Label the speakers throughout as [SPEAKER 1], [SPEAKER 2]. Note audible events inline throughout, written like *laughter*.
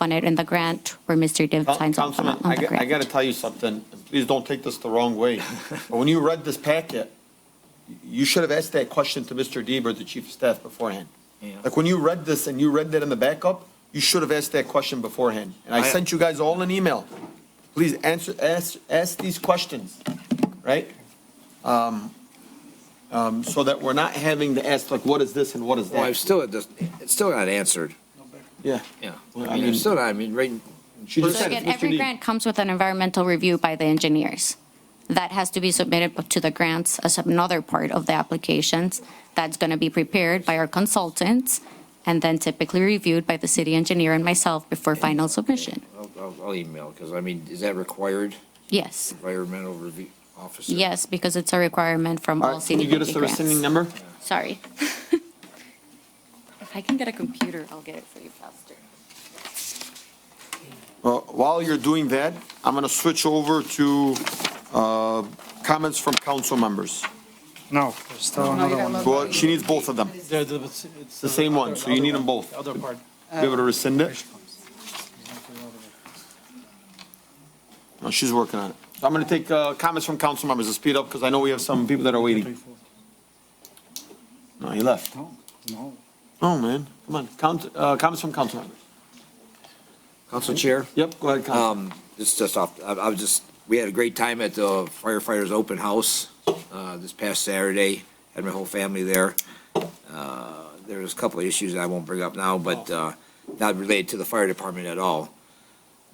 [SPEAKER 1] on it in the grant or Mr. Div signs off on
[SPEAKER 2] Councilman,
[SPEAKER 1] on
[SPEAKER 2] I
[SPEAKER 1] the
[SPEAKER 2] got, I got
[SPEAKER 1] grant.
[SPEAKER 2] to tell you something. Please don't take this the
[SPEAKER 1] *laughs*
[SPEAKER 2] wrong way. But when you read this packet, you should have asked that question to Mr. Deaver, the chief of staff beforehand. Like when you read this and you read that in the backup, you should have asked that question beforehand. And I
[SPEAKER 3] I-
[SPEAKER 2] sent you guys all an email. Please answer, ask, ask these questions, right? Um, um, so that we're not having to ask like, what is this and what is
[SPEAKER 3] Well, I've
[SPEAKER 2] that?
[SPEAKER 3] still, it does- it's still not answered.
[SPEAKER 2] Yeah.
[SPEAKER 3] Yeah.
[SPEAKER 2] Well, I
[SPEAKER 3] I mean,
[SPEAKER 2] mean-
[SPEAKER 3] it's still not, I mean, right,
[SPEAKER 2] She just
[SPEAKER 1] So
[SPEAKER 2] said,
[SPEAKER 1] again,
[SPEAKER 2] it's Mr.
[SPEAKER 1] every
[SPEAKER 2] Deaver.
[SPEAKER 1] grant comes with an environmental review by the engineers. That has to be submitted to the grants as another part of the applications. That's going to be prepared by our consultants and then typically reviewed by the city engineer and myself before final submission.
[SPEAKER 3] I'll, I'll- I'll email, because I mean, is that required,
[SPEAKER 1] Yes,
[SPEAKER 3] environmental review officer?
[SPEAKER 1] yes, because it's a requirement from
[SPEAKER 2] All
[SPEAKER 1] all
[SPEAKER 2] right, Can
[SPEAKER 1] city
[SPEAKER 2] you get us
[SPEAKER 1] grants.
[SPEAKER 2] the rescinding number?
[SPEAKER 1] Sorry. *laughs* If I can get a computer, I'll get it for you faster.
[SPEAKER 2] Well, While you're doing that, I'm going to switch over to uh, comments from council members.
[SPEAKER 4] No, there's still another one.
[SPEAKER 2] Well, she needs both of them.
[SPEAKER 5] They're the- It's it's
[SPEAKER 2] The same one, so you need them both.
[SPEAKER 5] the Other part.
[SPEAKER 2] Be able to rescind it? No, she's working on it. So I'm going to take uh, comments from council members to speed up because I know we have some people that are waiting. No, he left.
[SPEAKER 4] No, no.
[SPEAKER 2] Oh, man, come on, count, uh, comments from council members.
[SPEAKER 3] Council Chair?
[SPEAKER 2] Yep, go ahead, council.
[SPEAKER 3] Um, this is just off, I, I was just, we had a great time at the firefighters' open house, uh, this past Saturday. Had my whole family there. Uh, there was a couple of issues I won't bring up now, but, uh, not related to the fire department at all.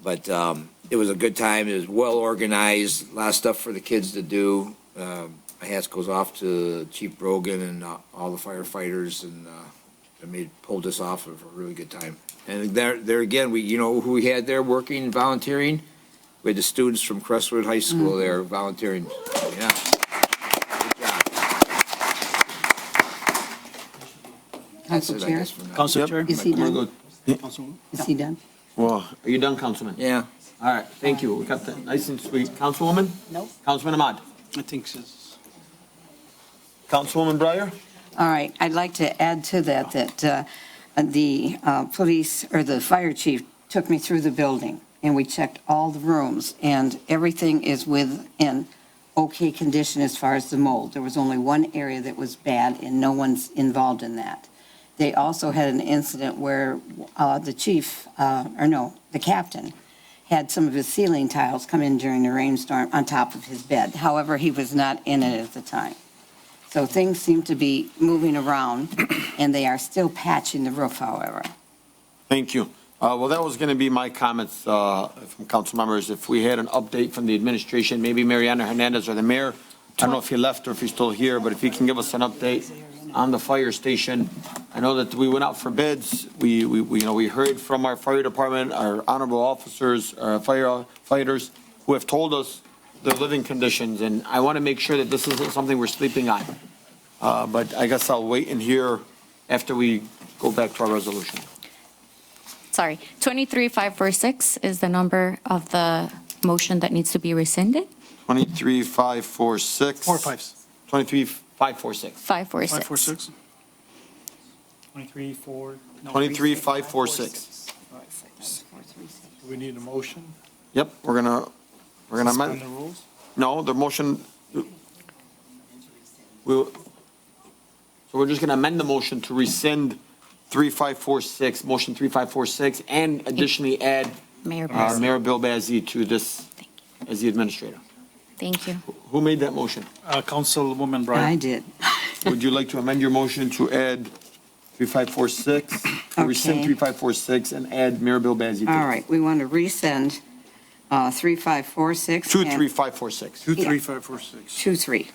[SPEAKER 3] But, um, it was a good time. It was well organized, a lot of stuff for the kids to do. Um, my hats goes off to Chief Brogan and uh, all the firefighters and, uh, I mean, pulled this off of a really good time. And there, there again, we, you know, who we had there working, volunteering? We had the students from Crestwood High School there volunteering, yeah. Good job. That's
[SPEAKER 6] Council
[SPEAKER 3] it, I
[SPEAKER 6] Chair?
[SPEAKER 3] guess, for now.
[SPEAKER 5] Council
[SPEAKER 2] Yep.
[SPEAKER 5] Chair?
[SPEAKER 6] Is he
[SPEAKER 2] Wanna
[SPEAKER 6] done?
[SPEAKER 2] go-
[SPEAKER 6] Is he done?
[SPEAKER 2] Well, are you done, councilman?
[SPEAKER 3] Yeah,
[SPEAKER 2] All right, thank you. We got that nice and sweet. Councilwoman?
[SPEAKER 6] Nope.
[SPEAKER 2] Councilman Ahmad?
[SPEAKER 5] I think it's.
[SPEAKER 2] Councilwoman Breyer?
[SPEAKER 6] All right, I'd like to add to that, that uh, the uh, police, or the fire chief took me through the building, and we checked all the rooms, and everything is within okay condition as far as the mold. There was only one area that was bad, and no one's involved in that. They also had an incident where uh, the chief, uh, or no, the captain, had some of his ceiling tiles come in during the rainstorm on top of his bed. However, he was not in it at the time. So things seem to be moving around, and they are still patching the roof, however.
[SPEAKER 2] Thank you. Uh, Well, that was going to be my comments uh, from council members. If we had an update from the administration, maybe Mariana Hernandez or the mayor, I don't know if he left or if he's still here, but if he can give us an update on the fire station. I know that we went out for bids. We, we, we, you know, we heard from our fire department, our honorable officers, our firefighters, who have told us their living conditions, and I want to make sure that this isn't something we're sleeping on. Uh, But I guess I'll wait and hear after we go back to our resolution.
[SPEAKER 1] Sorry, 23546 is the number of the motion that needs to be rescinded,
[SPEAKER 2] 23, 5, 4, 6.
[SPEAKER 5] Four fives.
[SPEAKER 2] 23, 5, 4, 6.
[SPEAKER 1] 546.
[SPEAKER 5] Five, four, six? Twenty-three, four. no,
[SPEAKER 2] 23,
[SPEAKER 5] three,
[SPEAKER 2] 5, 4, 6.
[SPEAKER 5] Do we need a motion?
[SPEAKER 2] Yep, we're gonna, we're gonna
[SPEAKER 5] Suspend the
[SPEAKER 2] amend,
[SPEAKER 5] rules?
[SPEAKER 2] no, the motion, we'll, so we're just gonna amend the motion to rescind 3546, motion 3546, and additionally add
[SPEAKER 1] Mayor
[SPEAKER 2] uh,
[SPEAKER 5] Um,
[SPEAKER 1] Pro-
[SPEAKER 2] Mayor Bill Bazey to this as the administrator.
[SPEAKER 1] Thank you.
[SPEAKER 2] Who made that motion?
[SPEAKER 6] *laughs*
[SPEAKER 5] Uh, Councilwoman
[SPEAKER 6] I
[SPEAKER 5] Bryan.
[SPEAKER 6] did.
[SPEAKER 2] Would you like to amend your motion to add 3546, to rescind
[SPEAKER 6] Okay.
[SPEAKER 2] 3546 and add Mayor Bill Bazey? to-
[SPEAKER 6] All right, we want to resend uh, 3546.
[SPEAKER 2] Two,
[SPEAKER 6] and-
[SPEAKER 2] three, five, four, six.
[SPEAKER 5] Two, three, five, four, six.
[SPEAKER 6] 23,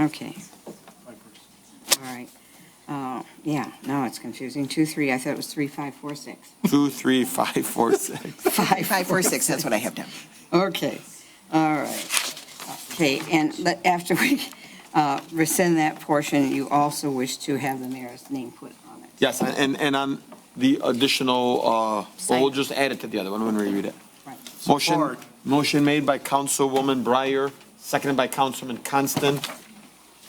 [SPEAKER 6] okay,
[SPEAKER 5] Five, four, six.
[SPEAKER 6] all right. Uh, Yeah, now it's confusing, 23, I thought it was *laughs* 3546.
[SPEAKER 2] Two, three, five, four, six.
[SPEAKER 6] 5546, that's what I have down. Okay, all right. Okay, and let- after we *laughs* uh, rescind that portion, you also wish to have the mayor's name put on it.
[SPEAKER 2] Yes, and, and on the additional, uh, well, we'll just add it to the other one when we read it.
[SPEAKER 6] Right.
[SPEAKER 2] Motion,
[SPEAKER 5] Support.
[SPEAKER 2] motion made by Councilwoman Breyer, seconded by Councilman Constant.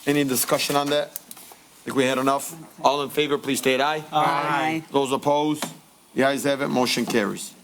[SPEAKER 2] Any discussion on that? Think we had enough? All in favor, please state aye.
[SPEAKER 6] Aye.
[SPEAKER 2] Those opposed? The ayes have it, motion carries.